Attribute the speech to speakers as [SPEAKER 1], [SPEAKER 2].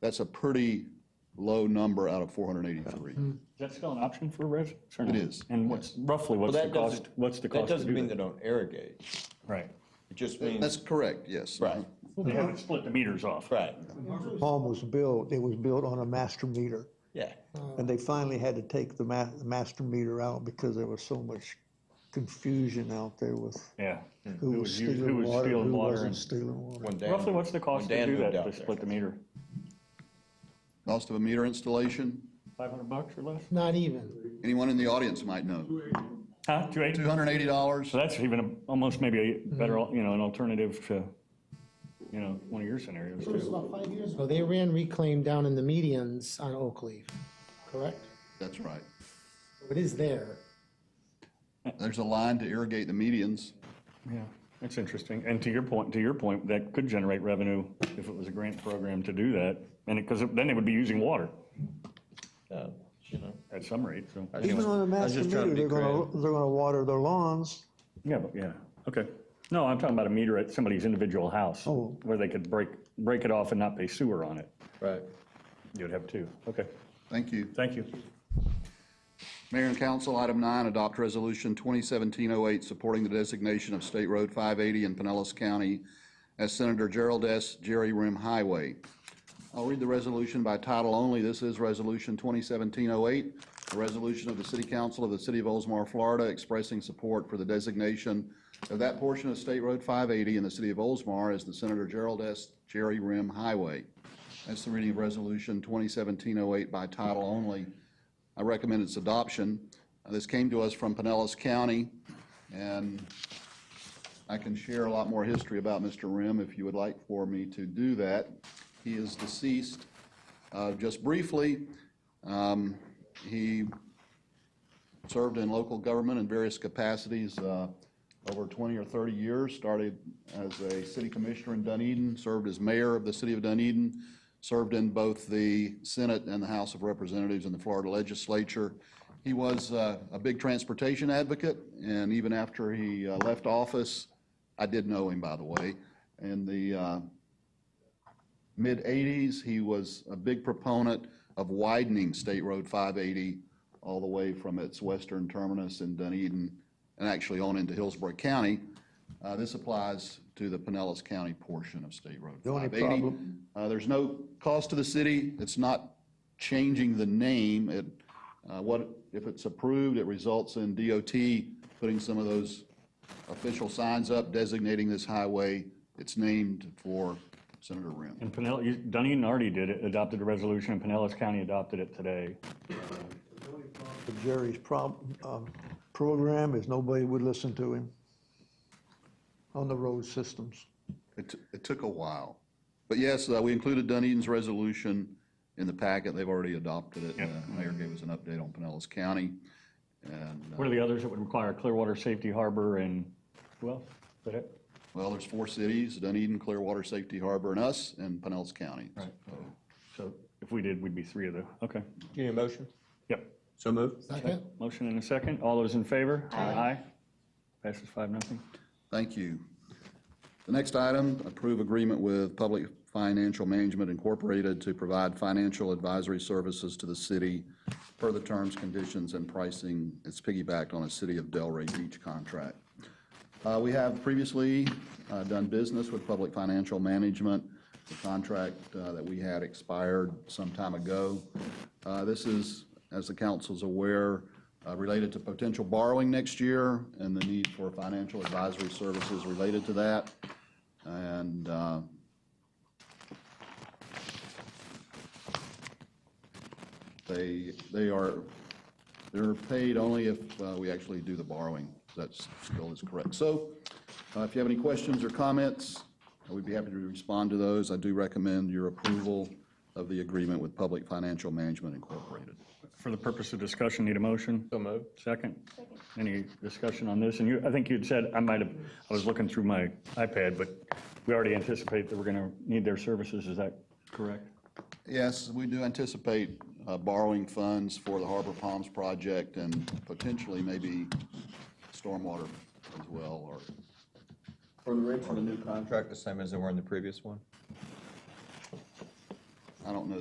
[SPEAKER 1] That's a pretty low number out of 483.
[SPEAKER 2] that still an option for residents or
[SPEAKER 1] It
[SPEAKER 2] not?
[SPEAKER 1] is,
[SPEAKER 2] And what's, roughly,
[SPEAKER 3] Well,
[SPEAKER 2] what's the
[SPEAKER 3] that
[SPEAKER 2] cost,
[SPEAKER 3] doesn't,
[SPEAKER 2] what's the
[SPEAKER 3] that
[SPEAKER 2] cost to
[SPEAKER 3] doesn't
[SPEAKER 2] do
[SPEAKER 3] mean
[SPEAKER 2] that?
[SPEAKER 3] they don't irrigate.
[SPEAKER 2] Right.
[SPEAKER 3] It just
[SPEAKER 1] That's
[SPEAKER 3] means,
[SPEAKER 1] correct, yes.
[SPEAKER 3] right,
[SPEAKER 2] They haven't split the meters off.
[SPEAKER 3] right,
[SPEAKER 4] home was built, it was built on a master meter.
[SPEAKER 3] yeah.
[SPEAKER 4] And they finally had to take the ma- the master meter out because there was so much confusion out there with
[SPEAKER 2] Yeah.
[SPEAKER 4] who
[SPEAKER 2] Who
[SPEAKER 4] was
[SPEAKER 2] was us- who
[SPEAKER 4] stealing
[SPEAKER 2] was
[SPEAKER 4] water,
[SPEAKER 2] stealing
[SPEAKER 4] who
[SPEAKER 2] water
[SPEAKER 4] wasn't
[SPEAKER 2] and-
[SPEAKER 4] stealing water.
[SPEAKER 3] When Dan-
[SPEAKER 2] Roughly, what's the
[SPEAKER 3] when
[SPEAKER 2] cost to
[SPEAKER 3] Dan
[SPEAKER 2] do
[SPEAKER 3] moved
[SPEAKER 2] that,
[SPEAKER 3] out
[SPEAKER 2] to
[SPEAKER 3] there.
[SPEAKER 2] split the meter?
[SPEAKER 1] Cost of a meter installation,
[SPEAKER 2] 500 bucks or less?
[SPEAKER 5] Not even.
[SPEAKER 1] anyone in the audience might know.
[SPEAKER 2] Huh, 280? So
[SPEAKER 1] $280,
[SPEAKER 2] that's even, a- almost maybe a
[SPEAKER 4] Mm-hmm.
[SPEAKER 2] better, al- you know, an alternative to, you know, one of your scenarios
[SPEAKER 5] It was
[SPEAKER 2] too.
[SPEAKER 5] about five years ago. They ran reclaim down in the medians on Oak Leaf, correct?
[SPEAKER 1] that's right.
[SPEAKER 5] It is there.
[SPEAKER 1] There's a line to irrigate the medians.
[SPEAKER 2] Yeah, that's interesting. And to your point, to your point, that could generate revenue if it was a grant program to do that. And because then they would be using water
[SPEAKER 3] Yeah, Uh, you know.
[SPEAKER 2] at some rate, so.
[SPEAKER 4] Even on a
[SPEAKER 3] I was
[SPEAKER 4] master
[SPEAKER 3] just trying to
[SPEAKER 4] meter,
[SPEAKER 3] be
[SPEAKER 4] they're gonna,
[SPEAKER 3] creative.
[SPEAKER 4] they're gonna water their lawns.
[SPEAKER 2] Yeah, but, yeah, okay. No, I'm talking about a meter at somebody's individual house.
[SPEAKER 4] Oh.
[SPEAKER 2] Where they could break, break it off and not pay sewer on it.
[SPEAKER 3] Right.
[SPEAKER 2] You'd have two. Okay,
[SPEAKER 1] Thank you.
[SPEAKER 2] thank you.
[SPEAKER 1] Mayor and council, item nine, adopt resolution 2017-08, supporting the designation of State Road 580 in Pinellas County as Senator Gerald S. Jerry Rim Highway. I'll read the resolution by title only. This is Resolution 2017-08, a resolution of the City Council of the City of Oldsmar, Florida, expressing support for the designation of that portion of State Road 580 in the City of Oldsmar as the Senator Gerald S. Jerry Rim Highway. That's the reading of Resolution 2017-08 by title only. I recommend its adoption. Uh, This came to us from Pinellas County, and I can share a lot more history about Mr. Rim if you would like for me to do that. He is deceased. Uh, Just briefly, um, he served in local government in various capacities uh, over 20 or 30 years, started as a city commissioner in Dunedin, served as mayor of the city of Dunedin, served in both the Senate and the House of Representatives in the Florida legislature. He was uh, a big transportation advocate, and even after he uh, left office, I did know him, by the way, in the uh, mid-'80s, he was a big proponent of widening State Road 580 all the way from its western terminus in Dunedin and actually on into Hillsborough County. Uh, This applies to the Pinellas County portion of State Road
[SPEAKER 4] The only
[SPEAKER 1] 580.
[SPEAKER 4] problem-
[SPEAKER 1] Uh, There's no cost to the city. It's not changing the name. It, uh, what, if it's approved, it results in DOT putting some of those official signs up designating this highway. It's named for Senator Rim.
[SPEAKER 2] And Pinellas, you- Dunedin already did it, adopted a resolution, and Pinellas County adopted it today.
[SPEAKER 4] But Jerry's prob, um, program is nobody would listen to him on the road systems.
[SPEAKER 1] It, t- it took a while. But yes, uh, we included Dunedin's resolution in the packet. They've already adopted it.
[SPEAKER 2] Yep.
[SPEAKER 1] Uh, Mayor gave us an update on Pinellas County. And, uh,
[SPEAKER 2] What are the others that would require Clearwater Safety Harbor and, who else? Is that it?
[SPEAKER 1] well, there's four cities, Dunedin, Clearwater, Safety Harbor, and us, and Pinellas County.
[SPEAKER 2] So if we did, we'd be three of the, okay.
[SPEAKER 3] Do you need a motion?
[SPEAKER 2] Yep.
[SPEAKER 3] So moved.
[SPEAKER 5] Second?
[SPEAKER 2] Motion and a second. All those in favor? Aye. Passes five, nothing.
[SPEAKER 1] Thank you. The next item, approve agreement with Public Financial Management Incorporated to provide financial advisory services to the city per the terms, conditions, and pricing. It's piggybacked on a City of Delray Beach contract. Uh, We have previously uh, done business with Public Financial Management. The contract uh, that we had expired some time ago. Uh, This is, as the council's aware, uh, related to potential borrowing next year and the need for financial advisory services related to that. And uh, they, they are they're paid only if uh, we actually do the borrowing. That's still is correct. So uh, if you have any questions or comments, I would be happy to respond to those. I do recommend your approval of the agreement with Public Financial Management Incorporated.
[SPEAKER 2] For the purpose of discussion, need a motion?
[SPEAKER 3] So moved.
[SPEAKER 2] Second? Any discussion on this? And you, I think you'd said, I might have, I was looking through my iPad, but we already anticipate that we're going to need their services. Is that correct?
[SPEAKER 1] Yes, we do anticipate uh, borrowing funds for the Harbor Palms project and potentially maybe stormwater as well, or
[SPEAKER 3] For the rates on the new contract, the same as they were in the previous one?
[SPEAKER 1] I don't know